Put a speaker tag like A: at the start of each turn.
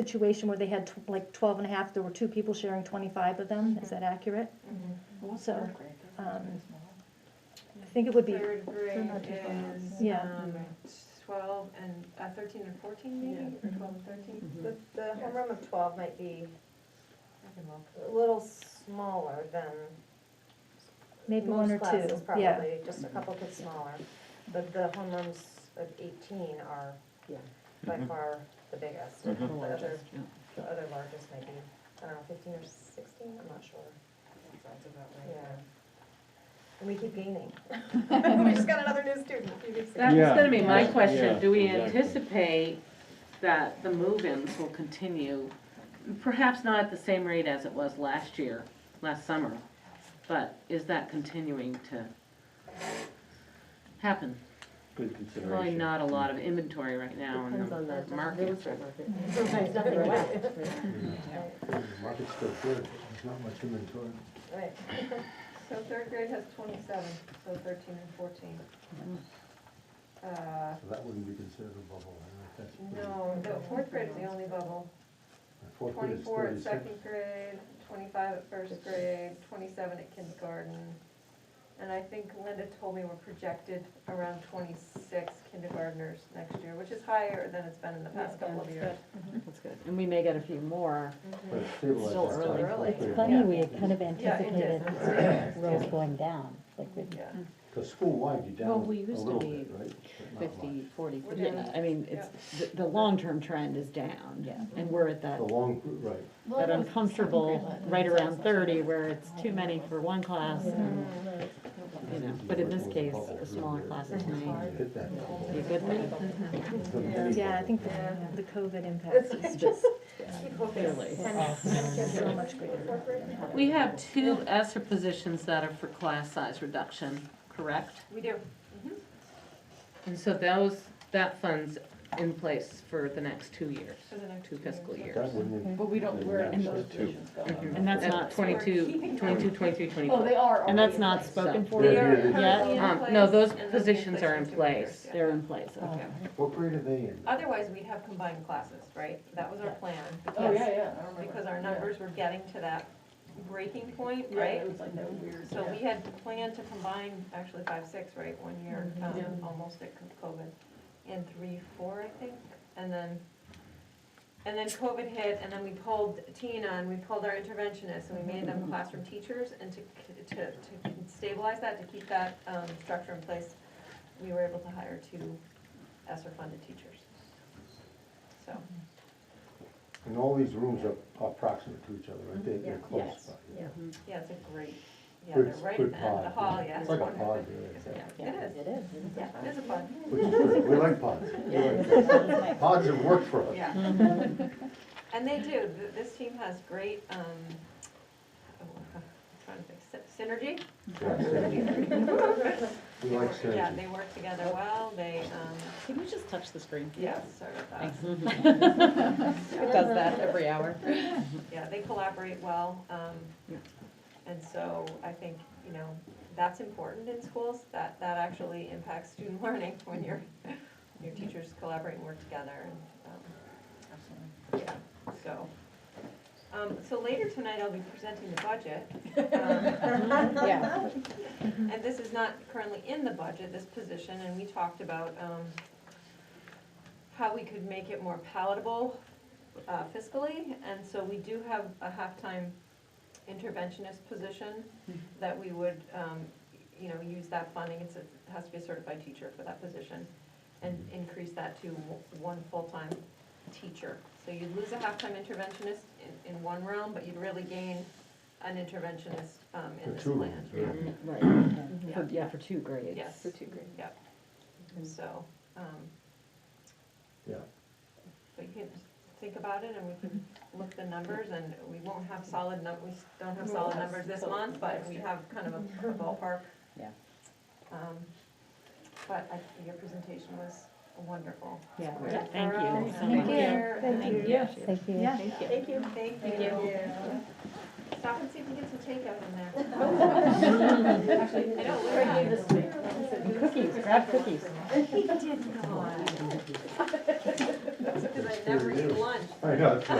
A: situation where they had tw- like 12 and a half, there were two people sharing 25 of them, is that accurate? So, um, I think it would be,
B: Third grade
C: not too far off.
B: is,
A: Yeah.
B: um, twelve and, uh, thirteen and fourteen maybe, or twelve and thirteen?
D: The, the homeroom of twelve might be
B: I can look.
D: a little smaller than
A: maybe one or
D: most
A: two,
D: classes,
A: yeah.
D: probably, just a couple kids smaller. But the homerooms of eighteen are
C: Yeah.
D: by
E: Mhm.
D: far the biggest. The
E: Mhm. The
D: other,
C: yeah.
D: the other largest might be, I don't know, fifteen or sixteen, I'm not sure,
B: Sounds about
D: yeah.
B: right.
D: And we keep gaining. We just got another new student a few weeks ago.
F: That was gonna be my
E: Yeah.
F: question,
E: Yeah,
F: do we
E: exactly.
F: anticipate that the move-ins will continue? Perhaps not at the same rate as it was last year, last summer, but is that continuing to happen?
E: Good consideration.
F: Probably not a lot of inventory right now in
C: Depends on
F: the
C: the real
F: market.
C: estate market. Sometimes nothing
D: Right.
C: left. Right.
G: Market's still good, there's not much inventory.
D: Right.
B: So third grade has twenty-seven, so thirteen and fourteen. Uh,
G: So that wouldn't be considered a bubble, I don't know if that's.
B: no, the fourth grade is the only bubble.
G: Fourth grade is
B: Twenty-four at
G: 36.
B: second grade, twenty-five at first grade, twenty-seven at kindergarten. And I think Linda told me we're projected around twenty-six kindergartners next year, which is higher than it's been in the past couple of years.
C: That's good. And we may get a few more.
G: But it's
C: It's still
G: stabilized.
C: early.
G: Fourth grade.
H: It's funny, we had kind of
B: Yeah, it
H: anticipated
B: is. It's stabilized,
H: rolls
B: yeah.
H: going down, like we
B: Yeah.
G: Because school-wide, you're
C: Well,
G: down a
C: we used to
G: little
C: be
G: bit, right? But not much.
C: 50, 40,
B: We're
C: yeah,
B: down.
C: I mean, it's, the, the long-term trend is down.
H: Yeah.
C: And we're at that,
G: The long, right.
C: that uncomfortable, right around thirty, where it's too many for one class, and, you know, but in this case, a smaller class is might
G: Hit that. bubble.
C: be a good thing,
G: It's a mini
A: Yeah, I
G: bubble.
A: think the, the COVID impact is just
C: clearly.
A: so much greater.
F: We have two ESER positions that are for class size reduction, correct?
B: We do.
F: And so those, that fund's in place for the next two years,
B: For the next
F: two
B: two
F: fiscal
B: years.
F: years.
G: That wouldn't.
I: But we don't, we're in
G: Yeah.
I: those positions though.
F: Mhm.
C: And that's not-
B: We're keeping them.
F: Twenty-two, twenty-two, twenty-three,
I: Oh,
F: twenty-four.
I: they are.
C: And
I: already
C: that's
I: in
C: not
I: place.
C: spoken
G: They're
C: for
B: They
C: yet?
B: are
G: here, they-
C: Yeah.
B: currently in
F: Um,
B: place,
F: no, those
B: and they'll be
F: positions are in
B: for two years,
F: place.
B: yeah.
C: They're in place, okay.
G: What grade are they in?
B: Otherwise, we'd have combined classes, right? That was our plan.
I: Oh,
B: because-
I: yeah, yeah, I remember.
B: Because our
I: Yeah.
B: numbers were getting to that breaking point,
I: Yeah,
B: right?
I: it was like that weird.
B: So
I: yeah.
B: we had planned to combine actually five, six, right, one year, um,
I: Mm-hmm. Yeah.
B: almost at COVID, and three, four, I think, and then, and then COVID hit, and then we pulled Tina, and we pulled our interventionists, and we made
I: Mm-hmm.
B: them classroom teachers, and to, c- to, to stabilize that, to keep that, um, structure in place, we were able to hire two ESSER-funded teachers. So,
G: And all these rooms are approximate to each other, right? They- They're
B: Yeah.
G: close
B: Yes.
G: by.
B: yeah, it's a great, yeah,
G: Good-
B: they're right at
G: good
B: the end of the
G: pod,
B: hall,
G: yeah.
B: yeah.
G: It's like a
B: wonderful.
G: pod, yeah,
B: Yeah,
C: yeah.
B: It is,
H: It is.
B: yeah, it is a pod.
G: Which is good. We like pods. We like pods. Pods have worked for us.
B: Yeah. And they do, Th- this team has great, um, oh, I'm trying to think, sy- synergy.
G: Yeah, synergy. We like
B: Yeah,
G: synergy.
B: they work together well, they, um,
C: Can you just touch the screen?
B: yeah, uh, sorry about
C: It does that every hour.
B: that. Yeah, they collaborate well, um,
C: Yeah.
B: and so I think, you know, that's important in schools, that, that actually impacts student learning when your, your teachers collaborate and work together and, um,
I: Absolutely.
B: Yeah, so, um, so later tonight I'll be presenting the budget. um,
I: Yeah.
B: And this is not currently in the budget, this position, and we talked about, um, how we could make it more palatable uh, fiscally. And so we do have a half-time interventionist position that we would, um, you know, use that funding. It's, a- it has to be a certified teacher for that position and increase that to one full-time teacher. So you'd lose a half-time interventionist in, in one realm, but you'd really gain an interventionist um, in
G: The
B: this
G: two
B: plan.
G: rooms,
B: Yeah.
G: right.
C: Right,
F: Mm-hmm.
B: Yeah.
C: For- yeah, for two grades.
B: Yes. For two grades. Yep. So, um,
G: Yeah.
B: but you can think about it and we can look the numbers and we won't have solid num, we s- don't have solid numbers this month, but we have kind of a ballpark.
C: Yeah.
B: Um, But I, your presentation was wonderful.
C: Yeah.
B: Very
C: Yeah, thank you.
B: thorough,
C: Thank
B: and
C: you.
B: clear,
A: Thank
B: and-
A: you.
C: Yeah.
H: Thank you.
A: Yeah.
B: Thank you. Thank you.
D: Yeah.
B: Stop and see if you get some takeout in there.
I: Actually,
B: I know,
I: we're
B: we're-
I: here this week.
C: Cookies, grab cookies.
B: He did not. because I never eat lunch.
G: I know, that's right.